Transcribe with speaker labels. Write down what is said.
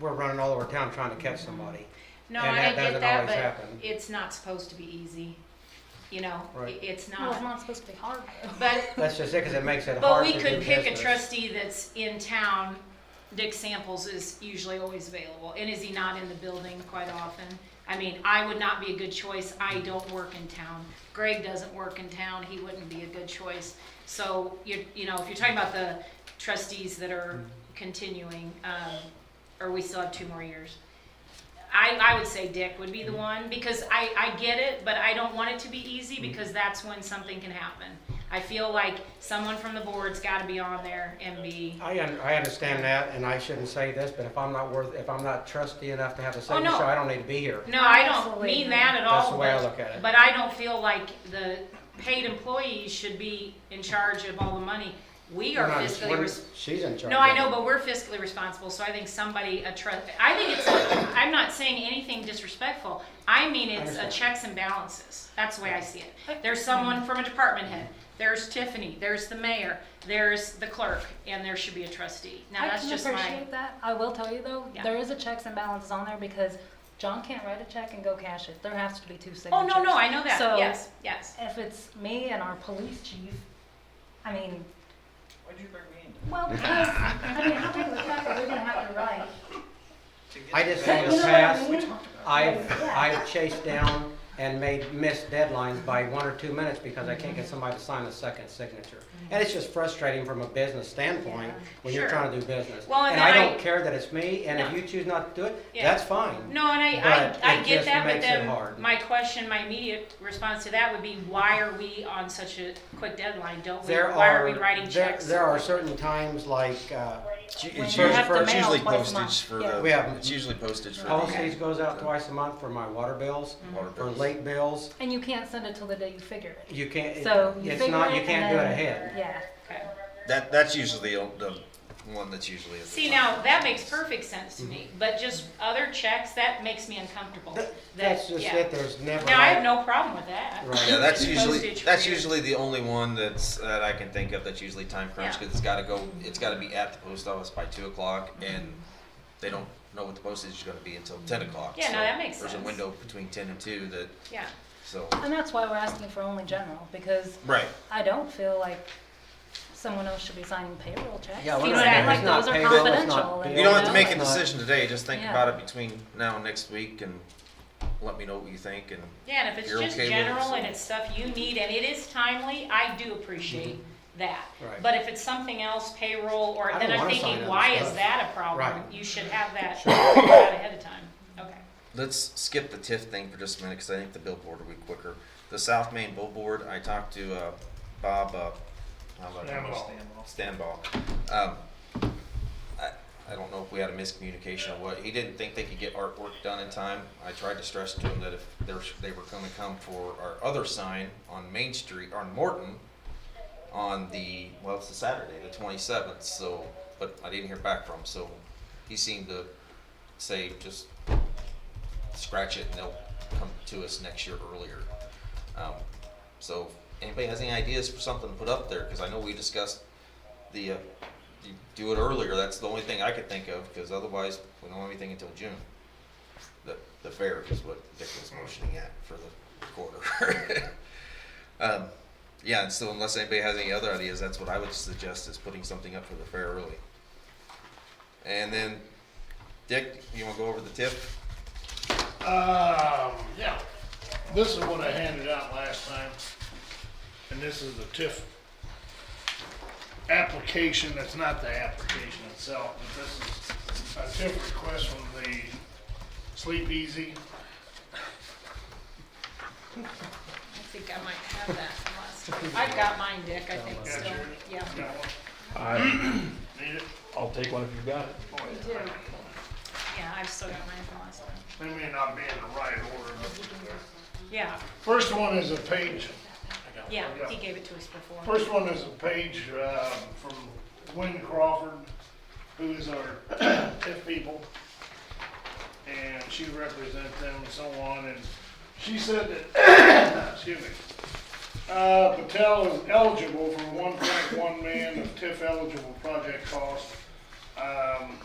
Speaker 1: we're running all over town trying to catch somebody.
Speaker 2: No,
Speaker 1: And
Speaker 2: I
Speaker 1: that
Speaker 2: get
Speaker 1: doesn't
Speaker 2: that,
Speaker 1: always
Speaker 2: but
Speaker 1: happen.
Speaker 2: it's not supposed to be easy. You know, i-
Speaker 1: Right.
Speaker 2: it's
Speaker 3: Well, it's
Speaker 2: not.
Speaker 3: not supposed to be hard. though.
Speaker 2: But,
Speaker 1: That's just it, because it makes it
Speaker 2: but
Speaker 1: hard
Speaker 2: we
Speaker 1: to do
Speaker 2: could pick a
Speaker 1: business.
Speaker 2: trustee that's in town. Dick Samples is usually always available. And is he not in the building quite often? I mean, I would not be a good choice. I don't work in town. Greg doesn't work in town. He wouldn't be a good choice. So you, you know, if you're talking about the trustees that are
Speaker 1: Mm.
Speaker 2: continuing, um, or we still have two more years. I, I would say Dick would be
Speaker 1: Mm.
Speaker 2: the one, because I, I get it, but I don't want it to be
Speaker 1: Mm.
Speaker 2: easy, because that's when something can happen. I feel like someone from the board's gotta be on there and be,
Speaker 1: I, un- I understand that, and I shouldn't say this, but if I'm not worth, if I'm not trustee enough to have a second
Speaker 2: Oh, no.
Speaker 1: show, I don't need to be here.
Speaker 2: no, I don't
Speaker 3: Absolutely.
Speaker 2: mean that at all.
Speaker 1: That's the way I
Speaker 2: but-
Speaker 1: look at it.
Speaker 2: But I don't feel like the paid employees should be in charge of all the money. We are
Speaker 1: We're not-
Speaker 2: fiscally
Speaker 1: we're-
Speaker 2: responsible.
Speaker 1: She's in charge.
Speaker 2: No, I
Speaker 1: of it.
Speaker 2: know, but we're fiscally responsible, so I think somebody, a trust, I think it's, I'm not saying anything disrespectful. I mean, it's a
Speaker 1: Understand.
Speaker 2: checks and balances. That's the way I see it. There's someone from a department head, there's Tiffany, there's the mayor, there's the clerk, and there should be a trustee. Now,
Speaker 3: I
Speaker 2: that's
Speaker 3: can
Speaker 2: just my,
Speaker 3: appreciate that. I will tell you though,
Speaker 2: Yeah.
Speaker 3: there is a checks and balances on there because John can't write a check and go cash it. There has to be two signatures.
Speaker 2: oh, no, no, I know that,
Speaker 3: So-
Speaker 2: yes, yes.
Speaker 3: If it's me and our police chief, I mean,
Speaker 4: Why'd you bring me in?
Speaker 3: well, because, I mean, how big of a check are we gonna have to write?
Speaker 4: To get
Speaker 1: I just
Speaker 4: the
Speaker 1: think
Speaker 3: You
Speaker 1: in
Speaker 3: know
Speaker 1: the
Speaker 3: what I
Speaker 1: past,
Speaker 3: mean?
Speaker 1: I've,
Speaker 3: Yeah.
Speaker 1: I've chased down and made missed deadlines by one or two minutes because I can't get somebody to sign a second signature. And it's just frustrating from a business standpoint
Speaker 3: Yeah.
Speaker 1: when you're
Speaker 2: Sure.
Speaker 1: trying to do business.
Speaker 2: Well, and
Speaker 1: And
Speaker 2: then
Speaker 1: I
Speaker 2: I-
Speaker 1: don't care that it's me, and if
Speaker 2: No.
Speaker 1: you choose not to do it,
Speaker 2: Yeah.
Speaker 1: that's fine.
Speaker 2: No, and I,
Speaker 1: But
Speaker 2: I, I
Speaker 1: it
Speaker 2: get
Speaker 1: just
Speaker 2: that, but
Speaker 1: makes it
Speaker 2: then
Speaker 1: hard.
Speaker 2: my question, my immediate response to that would be, why are we on such a quick deadline? Don't we,
Speaker 1: There
Speaker 2: why are we
Speaker 1: are-
Speaker 2: writing
Speaker 1: there-
Speaker 2: checks?
Speaker 1: There are certain times like, uh,
Speaker 5: It's u-
Speaker 3: When
Speaker 5: It's
Speaker 1: you
Speaker 5: usually,
Speaker 1: have to
Speaker 5: it's
Speaker 3: mail
Speaker 5: usually
Speaker 3: twice a month.
Speaker 5: postage for
Speaker 3: Yeah.
Speaker 5: the,
Speaker 1: We have-
Speaker 5: it's usually postage for
Speaker 1: Policies
Speaker 5: the
Speaker 1: goes out twice a month for my water bills,
Speaker 5: water
Speaker 1: for
Speaker 2: Mm-hmm.
Speaker 5: bills.
Speaker 1: late bills.
Speaker 3: And you can't send it till the day you figure it.
Speaker 1: You can't, it-
Speaker 3: So you
Speaker 1: it's
Speaker 3: figure
Speaker 1: not,
Speaker 3: it
Speaker 1: you
Speaker 3: and
Speaker 1: can't do it
Speaker 3: then-
Speaker 1: ahead.
Speaker 3: Yeah.
Speaker 2: Okay.
Speaker 5: That, that's usually the, the one that's usually. at the
Speaker 2: See,
Speaker 5: front.
Speaker 2: now, that makes perfect sense to me, but just other checks, that makes me uncomfortable.
Speaker 1: That-
Speaker 2: That-
Speaker 1: That's just
Speaker 2: yeah.
Speaker 1: it, there's never.
Speaker 2: Now, I have
Speaker 1: like-
Speaker 2: no problem with that.
Speaker 1: Right.
Speaker 5: Yeah, that's
Speaker 2: It's
Speaker 5: usually,
Speaker 2: postage
Speaker 5: that's
Speaker 2: for you.
Speaker 5: usually the only one that's, that I can think of that's usually time crunched,
Speaker 2: Yeah.
Speaker 5: cause it's gotta go, it's gotta be at the post office by two o'clock,
Speaker 2: Mm-hmm.
Speaker 5: and they don't know what the postage is gonna be until ten o'clock.
Speaker 2: Yeah, no,
Speaker 5: so
Speaker 2: that makes
Speaker 5: There's
Speaker 2: sense.
Speaker 5: a window between ten and two that,
Speaker 2: Yeah,
Speaker 5: so,
Speaker 3: And that's why we're asking for only general, because
Speaker 5: right,
Speaker 3: I don't feel like someone else should be signing payroll checks.
Speaker 1: Yeah,
Speaker 3: You
Speaker 1: we're
Speaker 2: not-
Speaker 3: know what I mean?
Speaker 2: it's
Speaker 3: Like,
Speaker 1: not
Speaker 3: those are
Speaker 1: payroll, it's not
Speaker 3: confidential. and,
Speaker 1: bill.
Speaker 5: you don't have
Speaker 3: know,
Speaker 5: to make a
Speaker 1: it's not-
Speaker 5: decision today, just think
Speaker 3: Yeah.
Speaker 5: about it between now and next week, and let me know what you think, and
Speaker 2: yeah, and if it's
Speaker 5: You're
Speaker 2: just
Speaker 5: okay with it,
Speaker 2: general
Speaker 5: so-
Speaker 2: and it's stuff you need and it is timely, I do appreciate that.
Speaker 1: Mm-hmm. Right.
Speaker 2: But if it's something else, payroll,
Speaker 1: I
Speaker 2: or,
Speaker 1: don't
Speaker 2: then I'm
Speaker 1: wanna sign
Speaker 2: thinking,
Speaker 1: other
Speaker 2: why is
Speaker 1: stuff.
Speaker 2: that a problem?
Speaker 1: Right.
Speaker 2: You should have that figured out ahead of time. Okay.
Speaker 5: Let's skip the TIFF thing for just a minute because I think the billboard will be quicker. The South Main billboard, I talked to uh, Bob. Uh, how about Stanball. Stanball. Um, I, I don't know if we had a miscommunication or what. He didn't think they could get artwork done in time. I tried to stress to him that if they're, they were going to come for our other sign on Main Street, on Morton, on the, well, it's the Saturday, the 27th, so, but I didn't hear back from him. So he seemed to say just scratch it and they'll come to us next year earlier. Um, so if anybody has any ideas for something to put up there, because I know we discussed the, uh, you do it earlier, that's the only thing I could think of, because otherwise we don't have anything until June. The, the fair is what Dick was motioning at for the quarter. Um, yeah, and so unless anybody has any other ideas, that's what I would suggest is putting something up for the fair early. And then, Dick, you wanna go over the tip?
Speaker 6: Um, yeah, this is what I handed out last time, and this is the TIF application, that's not the application itself, but this is a TIF request from the Sleep Easy.
Speaker 2: I think I might have that from last time. I've got mine, Dick, I think,
Speaker 6: Got
Speaker 2: still,
Speaker 6: yours?
Speaker 2: yeah.
Speaker 6: Got one?
Speaker 7: I,
Speaker 6: Need it?
Speaker 7: I'll take one if you've got it.
Speaker 6: Oh,
Speaker 2: You
Speaker 6: yeah.
Speaker 2: do. Yeah, I've still got mine from last time.
Speaker 6: They may not be in the right order, but
Speaker 2: Yeah,
Speaker 6: first one is a page
Speaker 2: yeah,
Speaker 6: Yeah.
Speaker 2: he gave it to us before.
Speaker 6: First one is a page um, from Gwen Crawford, who is our TIF people. And she represents them and so on, and she said that, excuse me, uh, Patel is eligible for one point one million of TIF eligible project cost. Um,